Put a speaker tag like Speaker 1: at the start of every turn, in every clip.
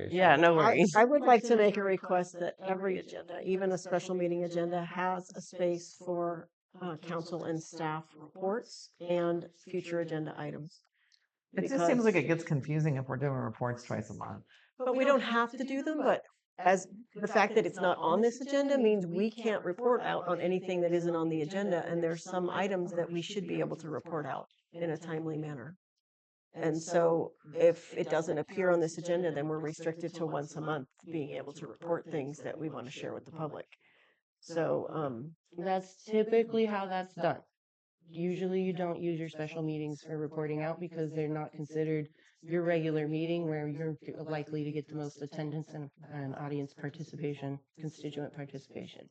Speaker 1: Okay,
Speaker 2: Yeah, no
Speaker 3: I,
Speaker 2: worries.
Speaker 3: I would like to make a request that every agenda, even a special meeting agenda, has a space for uh, council and staff reports and future agenda items.
Speaker 4: It just seems like
Speaker 3: Because-
Speaker 4: it gets confusing if we're doing reports twice a month.
Speaker 3: But we don't have to do them, but as the fact that it's not on this agenda means we can't report out on anything that isn't on the agenda, and there's some items that we should be able to report out in a timely manner. And so if it doesn't appear on this agenda, then we're restricted to once a month being able to report things that we want to share with the public. So, um,
Speaker 2: That's typically how that's done. Usually you don't use your special meetings for reporting out because they're not considered your regular meeting where you're likely to get the most attendance and, and audience participation, constituent participation.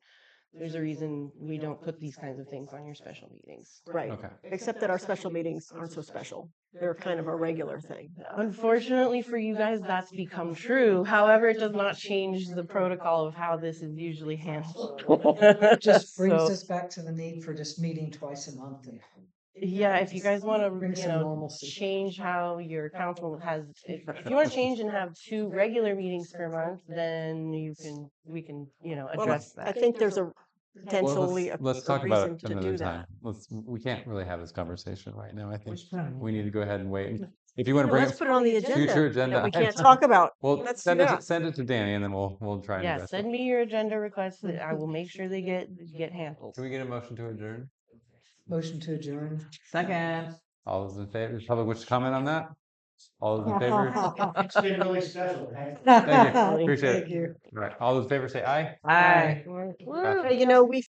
Speaker 2: There's a reason we don't put these kinds of things on your special meetings.
Speaker 3: right,
Speaker 1: okay.
Speaker 3: except that our special meetings aren't so special. They're kind of a regular thing.
Speaker 2: Unfortunately for you guys, that's become true. However, it does not change the protocol of how this is usually handled.
Speaker 5: Just brings
Speaker 2: So-
Speaker 5: us back to the need for just meeting twice a month. and-
Speaker 2: Yeah, if you guys want
Speaker 5: Bring
Speaker 2: to, you
Speaker 5: some
Speaker 2: know,
Speaker 5: normalcy.
Speaker 2: change how your council has, if if you want to change and have two regular meetings per month, then you can, we can, you know,
Speaker 3: Well,
Speaker 2: address
Speaker 3: I
Speaker 2: that.
Speaker 3: think there's a
Speaker 1: Well,
Speaker 3: potentially a
Speaker 1: let's- Let's
Speaker 3: a
Speaker 1: talk about
Speaker 3: reason
Speaker 1: it
Speaker 3: to do
Speaker 1: another
Speaker 3: that.
Speaker 1: time. Let's, we can't really have this conversation right now, I think.
Speaker 4: time?
Speaker 1: We need to go ahead and wait. And If you want to
Speaker 3: No,
Speaker 1: bring
Speaker 3: Let's
Speaker 1: up
Speaker 3: put it on the
Speaker 1: future
Speaker 3: agenda
Speaker 1: agenda.
Speaker 3: that we can't
Speaker 1: items,
Speaker 3: talk about.
Speaker 1: Well,
Speaker 3: let's do
Speaker 1: send it,
Speaker 3: that.
Speaker 1: send it to Danny and then we'll, we'll try and
Speaker 2: Yeah,
Speaker 1: address
Speaker 2: send
Speaker 1: it.
Speaker 2: me your agenda requests that I will make sure they get, get handled.
Speaker 1: Can we get a motion to adjourn?
Speaker 5: Motion to adjourn.
Speaker 4: Second.
Speaker 1: All those in favor, does public wish to comment on that? All those in favor?
Speaker 6: It's been really special. Thank
Speaker 1: Thank you, appreciate
Speaker 5: Thank
Speaker 1: it.
Speaker 5: you.
Speaker 1: All right, all those in favor say aye.
Speaker 4: Aye.
Speaker 3: But, You know, we